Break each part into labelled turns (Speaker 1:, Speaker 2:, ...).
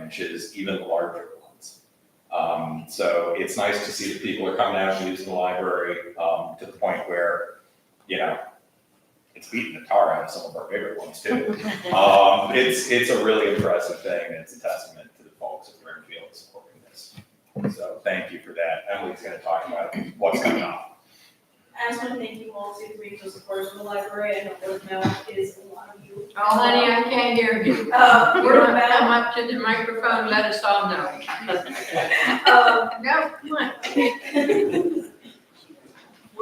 Speaker 1: branches, even the larger ones. Um, so it's nice to see that people are coming out and using the library, um, to the point where, you know, it's beating the tar out of some of our bigger ones too. Um, it's, it's a really impressive thing, and it's a testament to the folks at Brimfield supporting this. So thank you for that. Emily's gonna talk about what's coming up.
Speaker 2: I just want to thank you all too for being so supportive of the library. I know those now is a lot of you.
Speaker 3: Oh, honey, I can't hear you.
Speaker 2: Uh,
Speaker 3: We're gonna come up to the microphone, let us all know.
Speaker 2: Um,
Speaker 3: No, come on.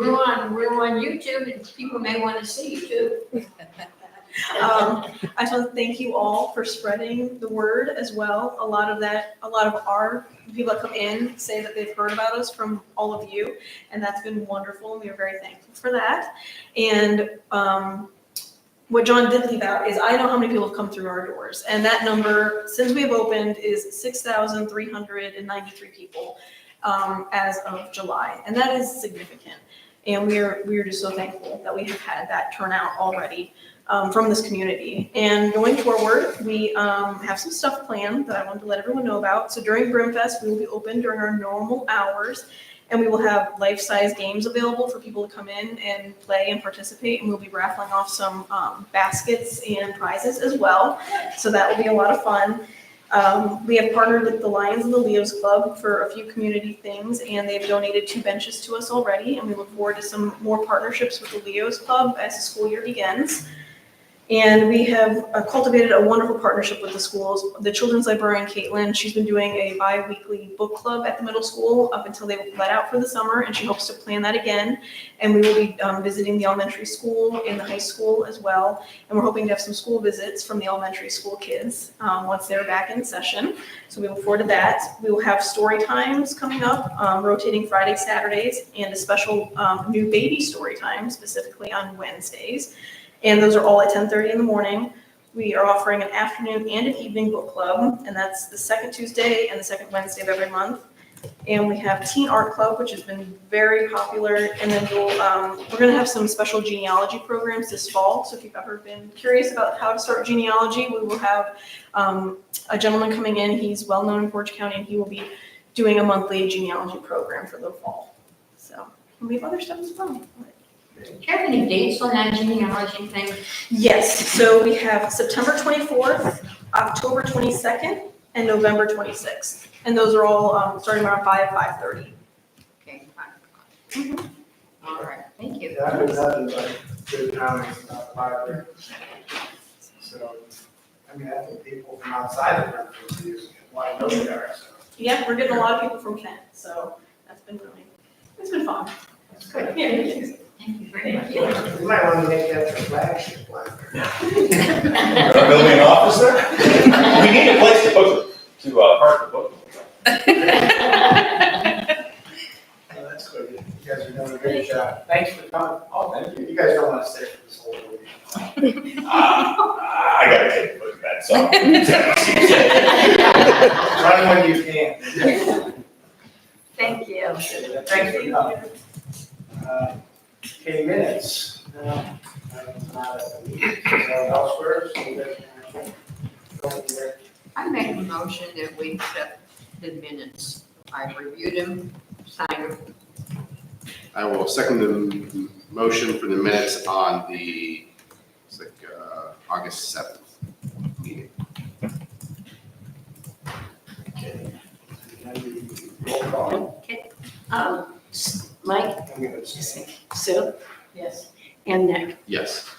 Speaker 3: We're on, we're on YouTube and people may want to see you too.
Speaker 2: Um, I just want to thank you all for spreading the word as well. A lot of that, a lot of our people that come in say that they've heard about us from all of you, and that's been wonderful. and We are very thankful for that. And um, what John did leave out is I know how many people have come through our doors, and that number since we have opened is six thousand three hundred and ninety-three people um, as of July, and that is significant. And we are we are just so thankful that we have had that turnout already um, from this community. And going forward, we um, have some stuff planned that I wanted to let everyone know about. So during Brimfest, we will be open during our normal hours, and we will have life-size games available for people to come in and play and participate. And we'll be raffling off some um, baskets and prizes as well. So that will be a lot of fun. Um, we have partnered with the Lions and the Leos Club for a few community things, and they've donated two benches to us already. And we look forward to some more partnerships with the Leos Club as the school year begins. And we have uh, cultivated a wonderful partnership with the schools. The children's librarian, Caitlin, she's been doing a bi-weekly book club at the middle school up until they let out for the summer, and she hopes to plan that again. And we will be um, visiting the elementary school and the high school as well. And we're hoping to have some school visits from the elementary school kids um, once they're back in session. So we look forward to that. We will have story times coming up, um, rotating Friday, Saturdays, and a special um, new baby story time specifically on Wednesdays and those are all at 10:30 in the morning. We are offering an afternoon and an evening book club, and that's the second Tuesday and the second Wednesday of every month. And we have Teen Art Club, which has been very popular, and then we'll, um, we're gonna have some special genealogy programs this fall. So if you've ever been curious about how to start genealogy, we will have, um, a gentleman coming in, he's well-known in Portage County, and he will be doing a monthly genealogy program for the fall. So, and we have other stuff as well, but-
Speaker 3: Do you have any dates on that genealogy thing?
Speaker 2: Yes, so we have September 24th, October 22nd, and November 26th. And those are all um, starting around 5, 5:30.
Speaker 3: Okay, fine. Mm-hmm. All right, thank you.
Speaker 4: Yeah, I've been having like good comments about the library. So, I mean, I think people from outside of Brookfield use it, why know they are, so.
Speaker 2: Yeah, we're getting a lot of people from Kent, so that's been really, it's been fun.
Speaker 3: Good.
Speaker 2: Yeah, it is.
Speaker 3: Thank you very much.
Speaker 4: We might want to make that the flagship library.
Speaker 1: We're building an office there? We need a place to book, to, uh, park the book.
Speaker 4: Oh, that's good. You guys are doing a great job. Thanks for coming. Oh, thank you. You guys don't want to stay for this whole meeting.
Speaker 1: Ah, I gotta take a look at that, so.
Speaker 4: Run when you can.
Speaker 3: Thank you.
Speaker 4: Thanks for coming. Uh, Okay, minutes. Now, I'm not at the meeting, so elsewhere, so you guys can go in there.
Speaker 3: I make a motion that we accept the minutes. I've reviewed them, signed them.
Speaker 5: I will second the m- motion for the minutes on the, it's like, uh, August seventh meeting.
Speaker 4: Okay. Roll call.
Speaker 6: Um, S- Mike,
Speaker 4: I'm gonna abstain.
Speaker 6: Sue,
Speaker 3: Yes.
Speaker 6: and Nick,
Speaker 5: Yes,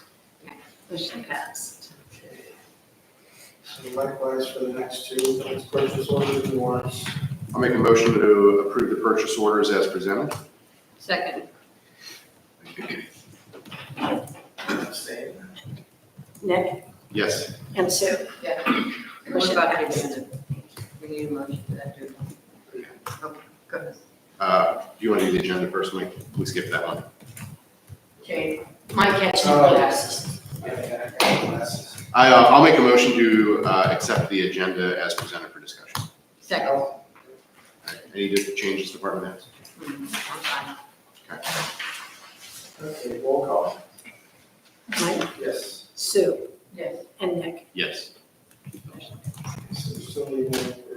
Speaker 6: motion passed.
Speaker 4: Okay. So likewise for the next two, let's purchase orders and warrants.
Speaker 5: I'll make a motion to approve the purchase orders as presented.
Speaker 3: Second,
Speaker 4: Abstain.
Speaker 6: Nick
Speaker 5: Yes,
Speaker 6: and Sue.
Speaker 3: yeah. What about the agenda? We need a motion for that, too. Okay, good.
Speaker 5: uh, do you want to do the agenda first, Mike? We skipped that one.
Speaker 3: Jane,
Speaker 6: Mike had two
Speaker 4: Oh.
Speaker 6: glasses.
Speaker 4: Yeah, yeah, I got glasses.
Speaker 5: I, uh, I'll make a motion to, uh, accept the agenda as presented for discussion. All
Speaker 3: second.
Speaker 5: right, Any di- changes, department heads?
Speaker 3: Mhm,
Speaker 5: Okay.
Speaker 4: Okay, roll call.
Speaker 6: Mike,
Speaker 4: Yes.
Speaker 6: Sue,
Speaker 3: Yes.
Speaker 6: and Nick.
Speaker 5: Yes,
Speaker 4: So you will